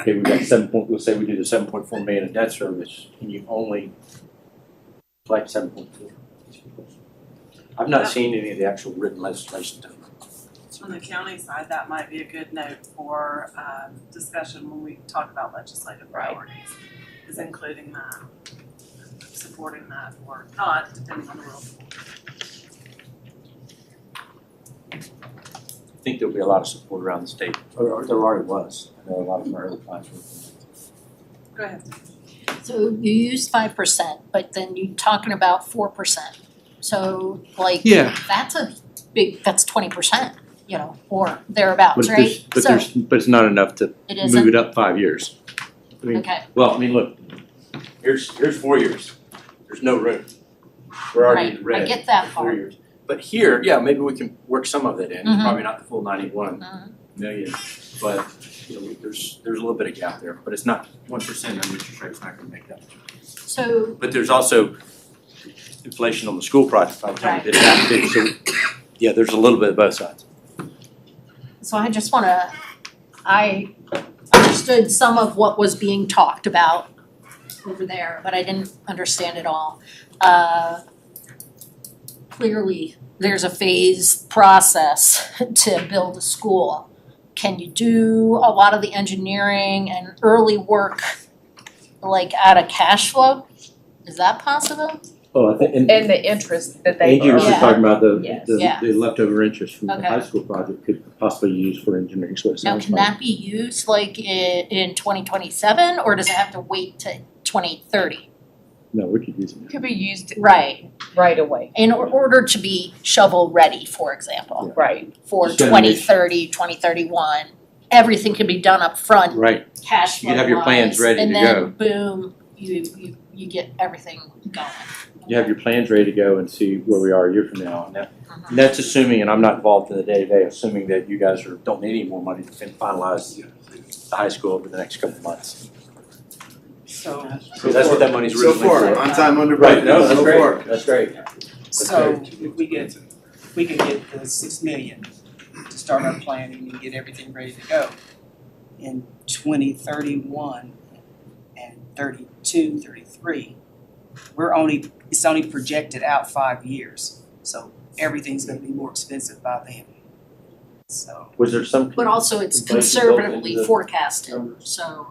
okay, we got seven point, let's say we do the seven point four million in debt service, and you only collect seven point four. I've not seen any of the actual written legislation done. On the county side, that might be a good note for um discussion when we talk about legislative Right. priorities. Is including that, supporting that or not, depending on the rule. I think there'll be a lot of support around the state, or, or there already was, I know a lot of my early clients were. Go ahead. So you use five percent, but then you're talking about four percent. So like, Yeah. that's a big, that's twenty percent, you know, or thereabouts, But right? there's, but there's, but it's not enough to So it move isn't, it up five years. I mean, okay, Well, I mean, look, here's, here's four years, there's no room, we're already right, in the red. I get that for four part. years. But here, yeah, maybe we can work some of it in, Mhm. probably not the full ninety-one Mhm. million, but, you know, we- there's, there's a little bit of gap there, but it's not one percent, and interest rate's not gonna make that. So, But there's also inflation on the school project by the time we did that, too, so, yeah, there's a little bit of both sides. so I just wanna, I understood some of what was being talked about over there, but I didn't understand it all. Uh, Clearly, there's a phase process to build a school. Can you do a lot of the engineering and early work, like out of cash flow? Is that possible? Oh, I think, and And the interest that they. Angie was just Yeah. talking about the, Yes. the, Yeah. the leftover interest from the Okay. high school project could possibly be used for engineering, so it Now, sounds can like. that be used like i- in twenty twenty-seven, or does it have to wait to twenty thirty? No, we could use it. Could be used Right, right away, in or- order to be shovel-ready, for example, right, for Just gotta make- 2030, 2031, Everything can be done up front, Right, cash You have your plans ready flow-wise, to and then boom, you, you, you get everything going. you have your plans ready to go and see where we are a year from now, and that, Mhm. And that's assuming, and I'm not involved in the day-to-day, assuming that you guys are, don't need any more money to fin- finalize the high school over the next couple of months. So. Because that's what that money's So originally. far, for. on time, under Right, budget, no, that's so far. great, that's great. So if we get, if we can get the six million to start our planning and get everything ready to go in twenty thirty-one and 32, 33, thirty-three, we're only, it's only projected out five years, so everything's gonna be more expensive by then. So, Was there some? But also it's Inflation built conservatively into the forecasted, numbers. so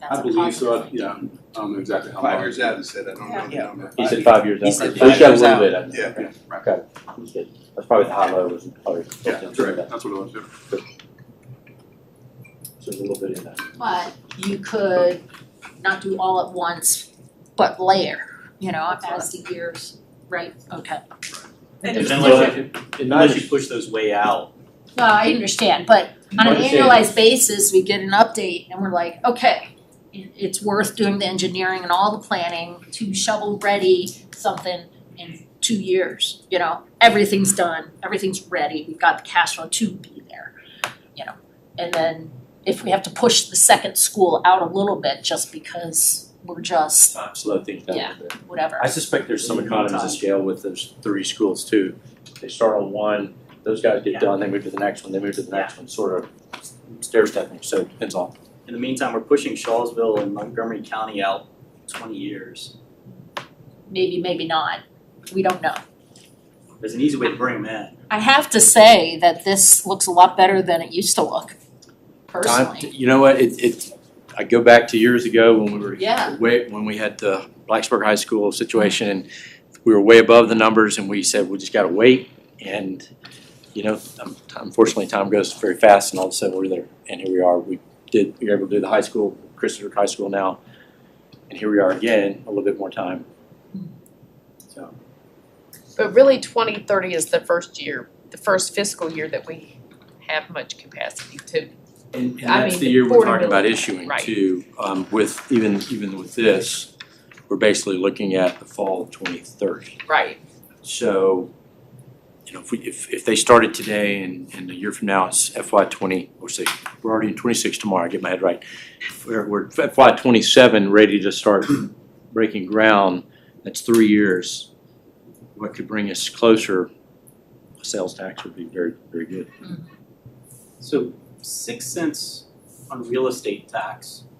that's I a believe so, I- positive. yeah, I don't know exactly how long. Five years out, he said, I don't know the Yeah. number. He said five years out. He said So he's got five years a little out. bit, I think. Yeah. Right. Okay. He's good. That's probably the high low was probably. Yeah, That's right, that's what it was, yeah. So there's a little bit in that. But you could not do all at once, but layer, you know, as the years, right, okay. And And just then look like- at- And I Unless you just- push those way out. No, I understand, but on an Understand. annualized basis, we get an update and we're like, okay, it it's worth doing the engineering and all the planning to shovel ready something in two years, you know? Everything's done, everything's ready, we've got the cash flow to be there, you know? And then if we have to push the second school out a little bit just because we're just Time slow things down Yeah. a bit. whatever. I suspect there's some economies of scale with those three schools too. They start on one, those guys get Yeah. done, they move to the next one, they move to the next one, sort of stair stepping, so it depends on. In the meantime, we're pushing Shawsville and Montgomery County out twenty years. maybe, maybe not. We don't know. There's an easy way to bring them I have to say that this looks a lot better than it used to look, Time, personally. you know what, it it, I go back to years ago when we were Yeah. way, when we had the Blacksburg High School situation and we were way above the numbers and we said, we just gotta wait and, you know, um, unfortunately, time goes very fast and all of a sudden we're there and here we are. We did, we were able to do the high school, Christopher High School now, and here we are again, a little bit more time. So, but really twenty thirty is the first year, the first fiscal year that we have much capacity to. and and I that's mean, the year we're talking about affordability, issuing right. too, um, with, even, even with this, we're basically looking at the fall of twenty thirty. Right. So, you know, if we, if, if they started today and, and a year from now, it's FY twenty, or say, we're already in twenty-six tomorrow, I get my head right. We're, we're FY twenty-seven, ready to start breaking ground, that's three years. What could bring us closer, sales tax would be very, very good. in. So six cents on real estate tax.